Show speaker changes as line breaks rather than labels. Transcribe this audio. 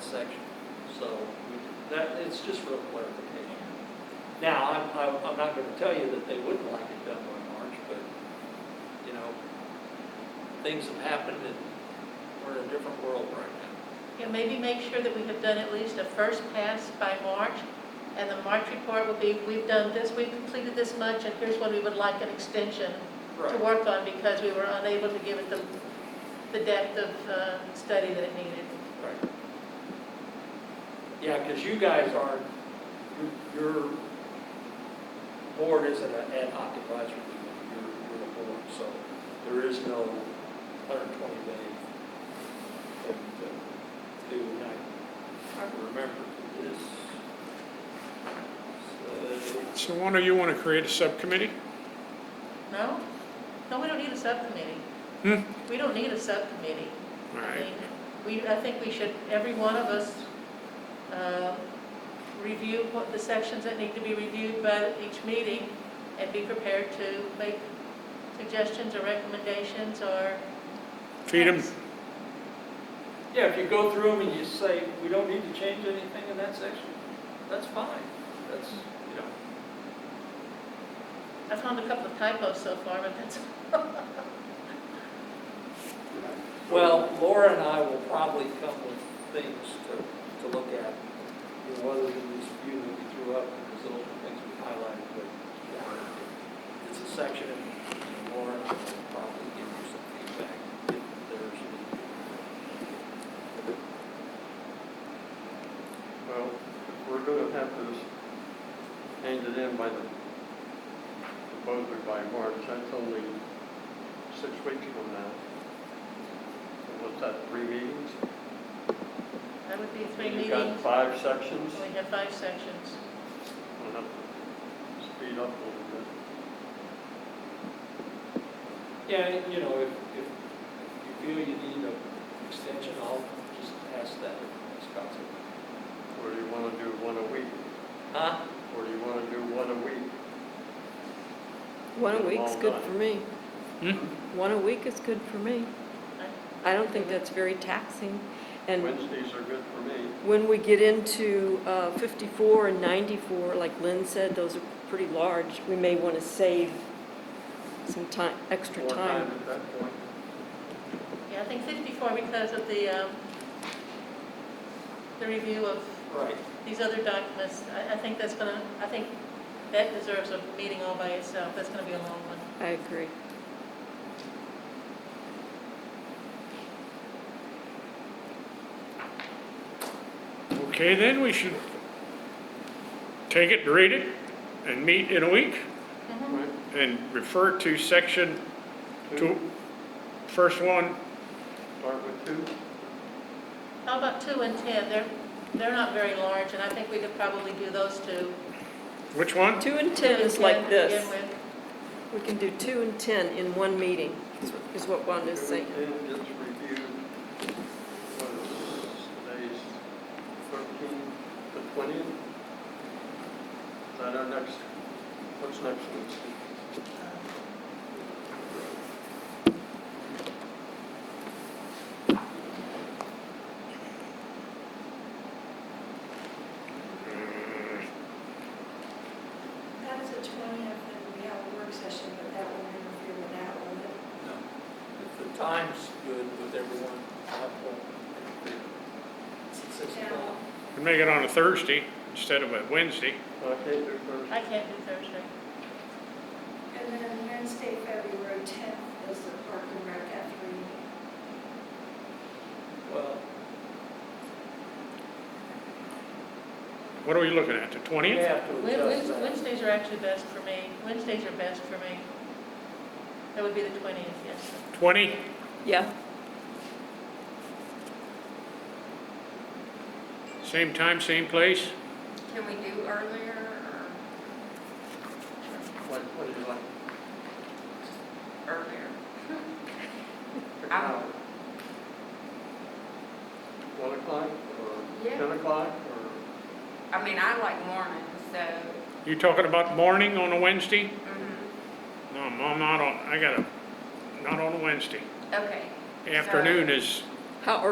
section. So that, it's just real clarification. Now, I'm, I'm, I'm not gonna tell you that they wouldn't like it done by March, but, you know, things have happened and we're in a different world right now.
Yeah, maybe make sure that we have done at least a first pass by March, and the March report will be, we've done this, we've completed this much, and here's what we would like an extension to work on, because we were unable to give it the, the depth of, uh, study that it needed.
Right. Yeah, because you guys aren't, your, your board isn't an ad hoc advisory committee, you're, you're a board, so there is no 120 day thing to do, and I, I remember this. So,
So one of you want to create a subcommittee?
No? No, we don't need a subcommittee.
Hmm.
We don't need a subcommittee.
All
I
right.
mean, We, I think we should, every one of us, uh, review what the sections that need to be reviewed by each meeting and be prepared to make suggestions or recommendations or.
Feed them,
Yeah, if you go through them and you say, we don't need to change anything in that section, that's fine, that's, you know.
I found a couple of typos so far, but that's,
Well, Laura and I will probably come with things to, to look at, you know, other than this view that we threw up, because those are things we highlighted, but yeah, it's a section, and Laura and I will probably give you some feedback if there's any.
Well, we're gonna have to hand it in by the, supposedly by March, that's only six weeks from now. So What's that, three meetings?
that would be three
You've got
meetings.
five sections,
We have five sections.
we'll have to speed up a little bit.
Yeah, and, you know, if, if you feel you need an extension, I'll just ask that, as council.
Or do you wanna do one a week?
Huh?
Or do you wanna do one a week?
One a
Been a
week's
long
good
time.
for me.
Hmm?
One a week is good for me. I don't think that's very taxing. And
Wednesdays are good for me.
when we get into uh, 54 and 94, like Lynn said, those are pretty large. We may want to save some time, extra
More time
time.
at that point.
Yeah, I think fifty-four because of the, um, the review of
Right.
these other documents. I, I think that's gonna, I think that deserves a meeting all by itself. That's gonna be a long one.
I agree.
Okay, then we should take it, read it, and meet in a week,
Mm-hmm.
Right,
and refer to section two,
two,
first one,
start with two.
How about two and 10? They're, they're not very large, and I think we could probably do those two.
which one?
Two and
Two
10
and
is like
10 to
this.
begin with.
We can do two and 10 in one meeting, is what- is what Wanda's saying.
Everything gets reviewed, what is today's 13, the 20th? Is that our next, what's next week?
That is the twentieth, and we have a work session, but that won't interfere with that one.
No. If the time's good with everyone, I won't interfere. It's six o'clock.
We Make it on a Thursday instead of a Wednesday.
Well, I can't do Thursday.
I can't do Thursday.
And then Wednesday, February tenth is the park and rec at three.
Well,
What are we looking at, the
we
20th?
have to
Wed-
adjust
Wed-
that.
Wednesdays are actually best for me. Wednesdays are best for me. That would be the 20th, yes.
20?
Yeah,
Same time, same place?
Can we do earlier
What, what do you like?
or earlier? Out.
One o'clock or
Yeah.
10 o'clock or?
I mean, I like mornings, so,
You talking about morning on a Wednesday?
mhm.
No, I'm not on, I gotta, not on a Wednesday.
okay.
Afternoon is
how